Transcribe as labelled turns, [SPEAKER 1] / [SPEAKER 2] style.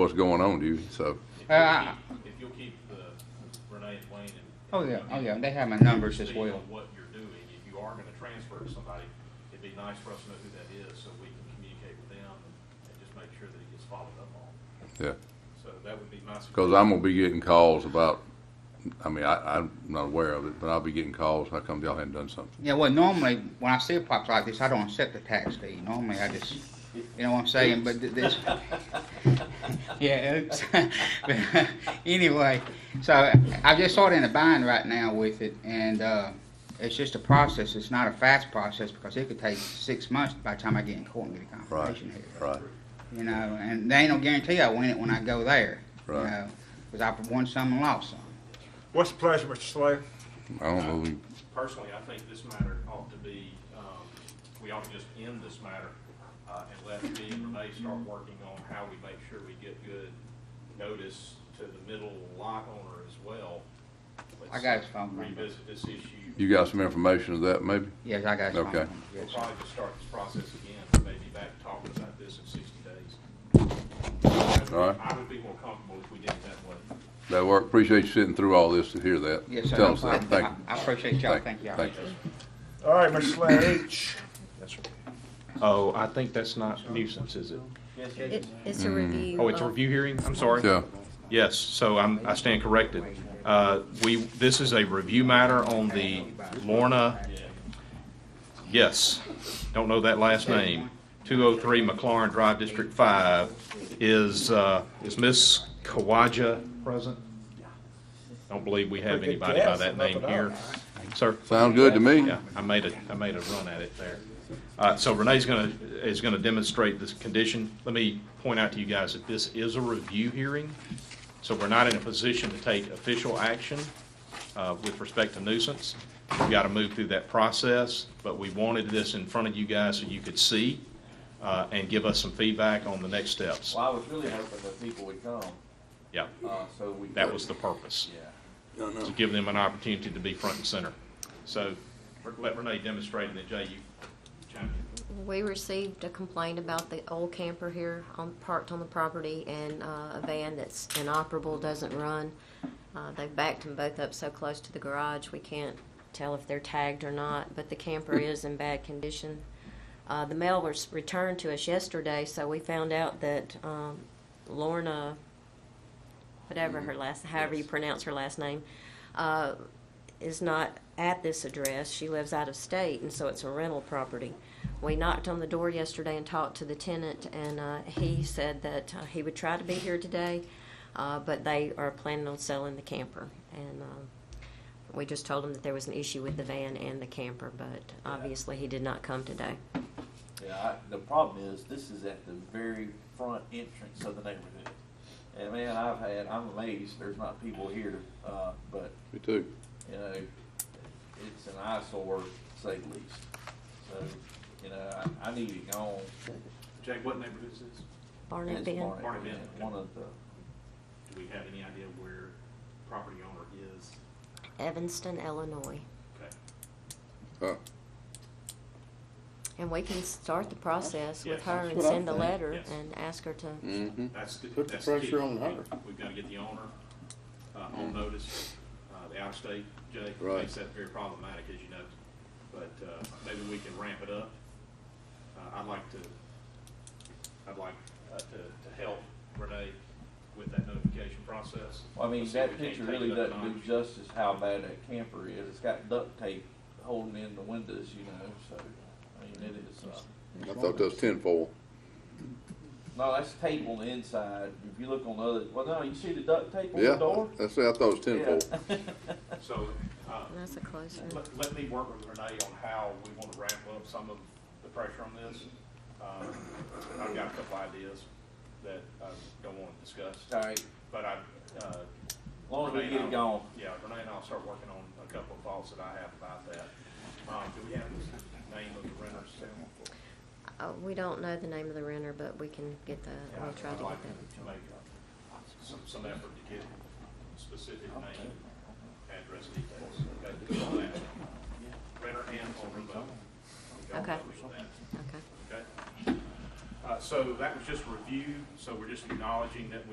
[SPEAKER 1] what's going on, do you? So,
[SPEAKER 2] Uh,
[SPEAKER 3] If you'll keep the Renee and Wayne and.
[SPEAKER 2] oh yeah, oh yeah, they have my numbers as
[SPEAKER 3] Speak on
[SPEAKER 2] well.
[SPEAKER 3] What you're doing, if you are gonna transfer to somebody, it'd be nice for us to know who that is, so we can communicate with them and and just make sure that it gets followed up on.
[SPEAKER 1] yeah.
[SPEAKER 3] So that would be my suggestion.
[SPEAKER 1] Because I'm gonna be getting calls about, I mean, I, I'm not aware of it, but I'll be getting calls, how come y'all hadn't done something?
[SPEAKER 2] Yeah, well, normally when I see pops like this, I don't accept the tax fee. Normally, I just, you know what I'm saying. But th- this, yeah. Oops. but anyway, so I just sort of in a bind right now with it, and uh, it's just a process. It's not a fast process because it could take six months by the time I get in court and get a
[SPEAKER 1] Right,
[SPEAKER 2] confirmation here.
[SPEAKER 1] right,
[SPEAKER 2] You know, and there ain't no guarantee I win it when I go there. You
[SPEAKER 1] Right.
[SPEAKER 2] know, because I've won some and lost some.
[SPEAKER 4] What's the pleasure, Mr. Slade?
[SPEAKER 1] I don't know, we-
[SPEAKER 3] Personally, I think this matter ought to be, um, we ought to just end this matter, uh, and let me and Renee start working on how we make sure we get good notice to the middle lot owner as well. Let's
[SPEAKER 2] I got his phone number.
[SPEAKER 3] Revisit this issue.
[SPEAKER 1] you got some information of that, maybe?
[SPEAKER 2] Yes, I got some.
[SPEAKER 1] Okay.
[SPEAKER 3] We'll
[SPEAKER 2] Yes, sir.
[SPEAKER 3] probably just start this process again, maybe back talking about this in sixty days.
[SPEAKER 1] All right.
[SPEAKER 3] I would be more comfortable if we did it that way.
[SPEAKER 1] That work, appreciate you sitting through all this to hear that.
[SPEAKER 2] Yes, sir.
[SPEAKER 1] Tell
[SPEAKER 2] no
[SPEAKER 1] us that,
[SPEAKER 2] problem.
[SPEAKER 1] thank you.
[SPEAKER 2] I I appreciate y'all. Thank y'all.
[SPEAKER 1] Thank you.
[SPEAKER 4] All right, Mr. Slade, H.
[SPEAKER 5] Oh, I think that's not nuisance, is it?
[SPEAKER 6] It- It's a review.
[SPEAKER 5] Oh, it's a
[SPEAKER 6] of-
[SPEAKER 5] review hearing? I'm sorry.
[SPEAKER 1] Yeah,
[SPEAKER 5] Yes, so I'm, I stand corrected. Uh, we, this is a review matter on the Lorna, yes, don't know that last name. Two oh three McLaurin Drive, District Five. Is, uh, is Miss Kawaja present? Don't believe we have
[SPEAKER 4] Pretty good
[SPEAKER 5] anybody by
[SPEAKER 4] guess,
[SPEAKER 5] that
[SPEAKER 4] nothing
[SPEAKER 5] name here. Sir?
[SPEAKER 1] sounds good to me.
[SPEAKER 5] Yeah, I made a, I made a run at it there. Uh, so Renee's gonna, is gonna demonstrate this condition. Let me point out to you guys that this is a review hearing, so we're not in a position to take official action, uh, with respect to nuisance. We've gotta move through that process, but we wanted this in front of you guys so you could see, uh, and give us some feedback on the next steps.
[SPEAKER 7] Well, I was really hoping that people would come,
[SPEAKER 5] Yeah,
[SPEAKER 7] uh, so we.
[SPEAKER 5] that
[SPEAKER 7] could-
[SPEAKER 5] was the purpose.
[SPEAKER 7] Yeah.
[SPEAKER 5] to give them an opportunity to be front and center. So let Renee demonstrate, and then Jay, you chime in.
[SPEAKER 6] We received a complaint about the old camper here on, parked on the property and, uh, a van that's inoperable, doesn't run. Uh, they've backed them both up so close to the garage, we can't tell if they're tagged or not, but the camper is in bad condition. Uh, the mail was returned to us yesterday, so we found out that, um, Lorna,
[SPEAKER 5] Mm.
[SPEAKER 6] whatever her last, however you pronounce her last name, uh, is not at this address. She lives out of state, and so it's a rental property. We knocked on the door yesterday and talked to the tenant, and uh, he said that uh, he would try to be here today, uh, but they are planning on selling the camper. And um, we just told him that there was an issue with the van and the camper, but obviously he did not come today.
[SPEAKER 7] Yeah, I, the problem is, this is at the very front entrance of the neighborhood. And man, I've had, I'm amazed, there's not people here, uh, but,
[SPEAKER 1] Me too.
[SPEAKER 7] you know, it's an eyesore, to say the least. So, you know, I, I need it gone.
[SPEAKER 3] Jake, what neighborhood is this?
[SPEAKER 6] Barnett
[SPEAKER 7] It's
[SPEAKER 6] Van,
[SPEAKER 7] Barnett,
[SPEAKER 3] Barnett Bend, okay.
[SPEAKER 7] One of the,
[SPEAKER 3] Do we have any idea where property owner is?
[SPEAKER 6] Evanston, Illinois.
[SPEAKER 3] Okay.
[SPEAKER 1] Huh.
[SPEAKER 6] And we can start the process with
[SPEAKER 3] Yes.
[SPEAKER 6] her and
[SPEAKER 8] That's what I
[SPEAKER 6] send a
[SPEAKER 8] think.
[SPEAKER 6] letter
[SPEAKER 3] Yes.
[SPEAKER 6] and ask her to
[SPEAKER 1] Mm-hmm.
[SPEAKER 3] That's the,
[SPEAKER 8] Hmm. Put the Hmm.
[SPEAKER 3] that's the key.
[SPEAKER 8] pressure on her.
[SPEAKER 3] We've got to get the owner uh, on notice, uh, the out-of-state, Jay,
[SPEAKER 1] Right.
[SPEAKER 3] makes that very problematic, as you know. But uh, maybe we can ramp it up. Uh, I'd like to, I'd like uh, to to help Renee with that notification process.
[SPEAKER 7] well, I mean,
[SPEAKER 3] So we
[SPEAKER 7] that
[SPEAKER 3] can't
[SPEAKER 7] picture
[SPEAKER 3] take it
[SPEAKER 7] really
[SPEAKER 3] up a
[SPEAKER 7] doesn't do
[SPEAKER 3] notch.
[SPEAKER 7] justice how bad that camper is. It's got duct tape holding in the windows, you know, so, I mean, it is, uh,
[SPEAKER 1] I thought that was tenfold.
[SPEAKER 7] No, that's tape on the inside. If you look on the other, well, no, you see the duct tape on the
[SPEAKER 1] Yeah,
[SPEAKER 7] door?
[SPEAKER 1] that's it, I thought it was tenfold.
[SPEAKER 7] Yeah.
[SPEAKER 3] So uh,
[SPEAKER 6] That's a close one.
[SPEAKER 3] let, let me work with Renee on how we want to ramp up some of the pressure on this. Um, I've got a couple ideas that I don't want to discuss.
[SPEAKER 7] All right,
[SPEAKER 3] But I, uh.
[SPEAKER 7] as long as we
[SPEAKER 3] Renee
[SPEAKER 7] get
[SPEAKER 3] and
[SPEAKER 7] it
[SPEAKER 3] I'll-
[SPEAKER 7] gone.
[SPEAKER 3] Yeah, Renee and I'll start working on a couple of thoughts that I have about that. Um, do we have the name of the renters?
[SPEAKER 6] Uh, we don't know the name of the renter, but we can get the,
[SPEAKER 3] Yeah,
[SPEAKER 6] we'll try to
[SPEAKER 3] I'd
[SPEAKER 6] get
[SPEAKER 3] like
[SPEAKER 6] that.
[SPEAKER 3] to make uh, some, some effort to get specific name, address details. Okay, do all that. Renter and owner both. We got that,
[SPEAKER 6] Okay.
[SPEAKER 3] we got that.
[SPEAKER 6] Okay.
[SPEAKER 3] Okay? Uh, so that was just review, so we're just acknowledging that we